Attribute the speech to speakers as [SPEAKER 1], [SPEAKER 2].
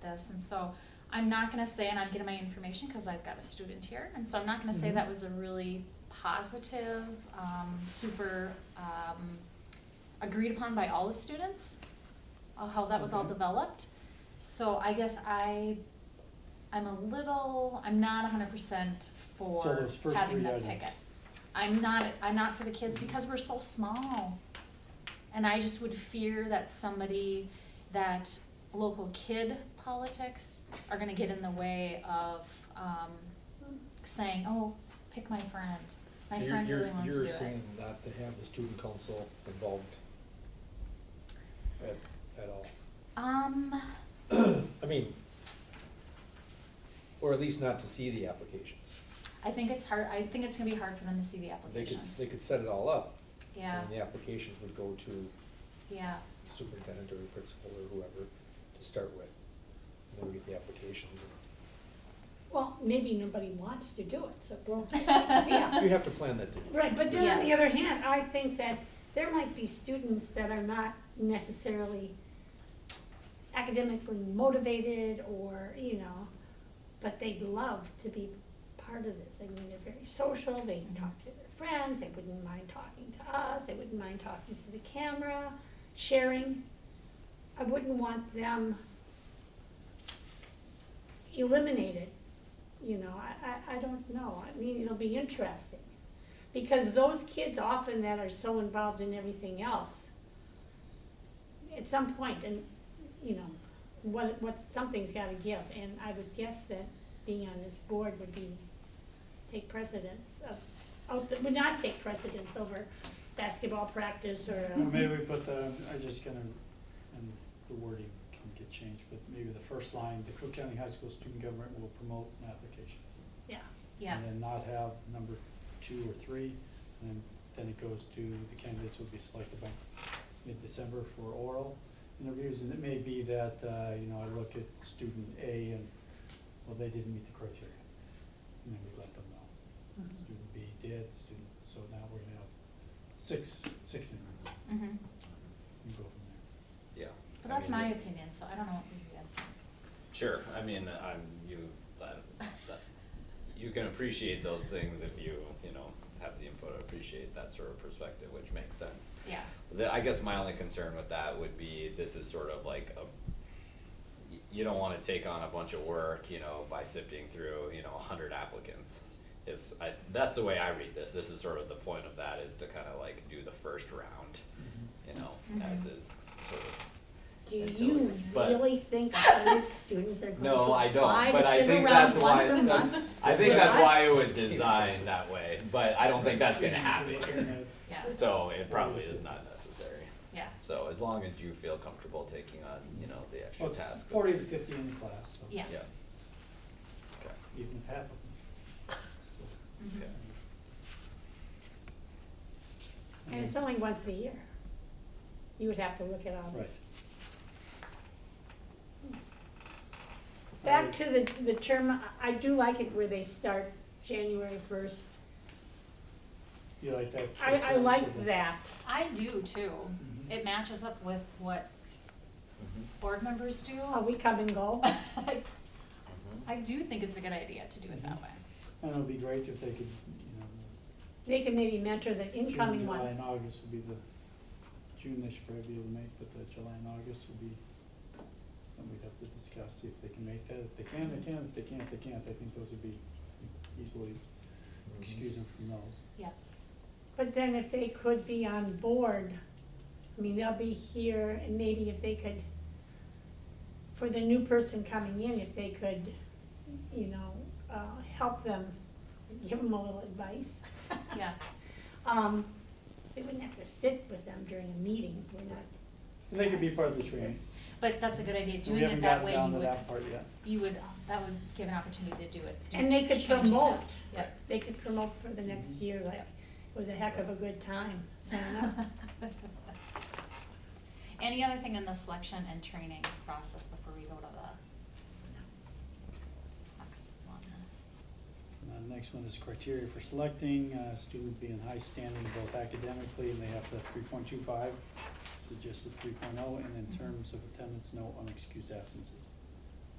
[SPEAKER 1] this, and so I'm not gonna say, and I'm getting my information, cause I've got a student here, and so I'm not gonna say
[SPEAKER 2] Mhm.
[SPEAKER 1] that was a really positive, um, super, um, agreed upon by all the students, uh, how that was all
[SPEAKER 2] Okay.
[SPEAKER 1] developed. So I guess I, I'm a little, I'm not hundred percent for
[SPEAKER 2] So those first
[SPEAKER 1] having
[SPEAKER 2] three
[SPEAKER 1] them pick it.
[SPEAKER 2] items.
[SPEAKER 1] I'm not, I'm not for the kids because we're so small. And I just would fear that somebody, that local kid politics are gonna get in the way of, um, saying, oh, pick my friend. My
[SPEAKER 3] You're-
[SPEAKER 1] friend
[SPEAKER 3] you're-
[SPEAKER 1] really wants to do it.
[SPEAKER 3] You're saying not to have the student council involved at, at all.
[SPEAKER 1] Um,
[SPEAKER 3] I mean, or at least not to see the applications.
[SPEAKER 1] I think it's hard, I think it's gonna be hard for them to see the
[SPEAKER 3] They could,
[SPEAKER 1] applications.
[SPEAKER 3] they could set it all up.
[SPEAKER 1] Yeah,
[SPEAKER 3] And the applications would go to
[SPEAKER 1] yeah,
[SPEAKER 3] the superintendent or the principal or whoever to start with. And then we get the applications.
[SPEAKER 4] Well, maybe nobody wants to do it, so we'll, yeah.
[SPEAKER 3] You have to plan that, didn't
[SPEAKER 4] Right, but then on the other
[SPEAKER 1] Yes.
[SPEAKER 4] hand, I think that there might be students that are not necessarily academically motivated or, you know, but they'd love to be part of this. I mean, they're very social, they talk to their friends, they wouldn't mind talking to us, they wouldn't mind talking to the camera, sharing. I wouldn't want them eliminated, you know, I, I, I don't know. I mean, it'll be interesting. Because those kids often that are so involved in everything else, at some point, and, you know, what, what, something's gotta give, and I would guess that being on this board would be, take precedence of, of, would not take precedence over basketball practice or. uh,
[SPEAKER 5] Well, maybe we put the, I just gonna, and the wording can get changed, but maybe the first line, the Cook County High School student government will promote applications.
[SPEAKER 4] Yeah,
[SPEAKER 1] yeah,
[SPEAKER 5] And then not have number two or three, and then, then it goes to the candidates will be selected by mid-December for oral interviews. And it may be that, uh, you know, I look at student A and, well, they didn't meet the criteria. And then we let them know.
[SPEAKER 1] Mm-hmm.
[SPEAKER 5] Student B did, student, so now we're gonna have six, six interviews
[SPEAKER 1] hmm
[SPEAKER 5] and go from there.
[SPEAKER 6] Yeah.
[SPEAKER 1] But
[SPEAKER 6] I
[SPEAKER 1] that's
[SPEAKER 6] mean,
[SPEAKER 1] my
[SPEAKER 6] it-
[SPEAKER 1] opinion, so I don't know what you guys think.
[SPEAKER 6] Sure, I mean, I'm, you, that, that, you can appreciate those things if you, you know, have the input, appreciate that sort of perspective, which makes sense.
[SPEAKER 1] Yeah,
[SPEAKER 6] The, I guess my only concern with that would be, this is sort of like a, y- you don't wanna take on a bunch of work, you know, by sifting through, you know, a hundred applicants. It's, I, that's the way I read this, this is sort of the point of that, is to kinda like do the first round, you know, as
[SPEAKER 1] Mhm.
[SPEAKER 6] is sort of
[SPEAKER 4] Do
[SPEAKER 6] Until-
[SPEAKER 4] you
[SPEAKER 6] but-
[SPEAKER 4] really think college students are going to
[SPEAKER 6] No,
[SPEAKER 4] apply
[SPEAKER 6] I don't,
[SPEAKER 4] to
[SPEAKER 6] but I
[SPEAKER 4] sit
[SPEAKER 6] think
[SPEAKER 4] around
[SPEAKER 6] that's
[SPEAKER 4] once
[SPEAKER 6] why,
[SPEAKER 4] a month?
[SPEAKER 6] that's, I think that's why it was designed that way, but I don't think that's gonna happen here.
[SPEAKER 1] yeah,
[SPEAKER 6] So it probably is not necessary.
[SPEAKER 1] yeah,
[SPEAKER 6] So as long as you feel comfortable taking on, you know, the
[SPEAKER 5] Well,
[SPEAKER 6] extra
[SPEAKER 5] it's
[SPEAKER 6] task. of-
[SPEAKER 5] forty to fifty in the class, so
[SPEAKER 1] yeah.
[SPEAKER 6] Yeah. Okay,
[SPEAKER 5] even if half of them. still-
[SPEAKER 1] mhm.
[SPEAKER 6] okay.
[SPEAKER 4] And it's only once a year. You would have to look at all
[SPEAKER 5] Right.
[SPEAKER 4] this. Back to the, the term, I- I do like it where they start January first.
[SPEAKER 5] You like that?
[SPEAKER 4] I, I like
[SPEAKER 5] flexible.
[SPEAKER 4] that.
[SPEAKER 1] I do too.
[SPEAKER 5] Mhm.
[SPEAKER 1] It matches up with what
[SPEAKER 6] Mm-hmm.
[SPEAKER 1] board members do.
[SPEAKER 4] Oh, we come and go.
[SPEAKER 6] Mhm.
[SPEAKER 1] I do think it's a good idea to do it that
[SPEAKER 5] Mhm.
[SPEAKER 1] way.
[SPEAKER 5] And it would be great if they could, you know,
[SPEAKER 4] They can maybe mentor the
[SPEAKER 5] June,
[SPEAKER 4] incoming
[SPEAKER 5] July
[SPEAKER 4] one.
[SPEAKER 5] and August would be the, June they should probably be able to make, but the July and August would be something we'd have to discuss, see if they can make that. If they can, they can. If they can't, they can't. I think those would be easily,
[SPEAKER 3] Mm-hmm.
[SPEAKER 5] excuse them from those.
[SPEAKER 1] Yeah,
[SPEAKER 4] But then if they could be on board, I mean, they'll be here and maybe if they could, for the new person coming in, if they could, you know, uh, help them, give them a little advice. Mm-hmm.
[SPEAKER 1] yeah,
[SPEAKER 4] Um, they wouldn't have to sit with them during a meeting, we're not,
[SPEAKER 5] And they could be part of the training.
[SPEAKER 1] but that's a good idea.
[SPEAKER 5] We
[SPEAKER 1] Doing it
[SPEAKER 5] haven't
[SPEAKER 1] that
[SPEAKER 5] gotten
[SPEAKER 1] way,
[SPEAKER 5] down
[SPEAKER 1] you
[SPEAKER 5] to
[SPEAKER 1] would,
[SPEAKER 5] that part yet.
[SPEAKER 1] you would, that would give an opportunity to do it. do-
[SPEAKER 4] And they could
[SPEAKER 1] changing that.
[SPEAKER 4] promote.
[SPEAKER 1] Yeah.
[SPEAKER 4] they could promote for the next year, like, it was a heck of a good time, sign up.
[SPEAKER 1] Any other thing in the selection and training process before we go to the next one?
[SPEAKER 5] Uh, the next one is criteria for selecting, uh, student be in high standing both academically and they have the three oh, point two five, suggested three and in terms of attendance, no unexcused absences.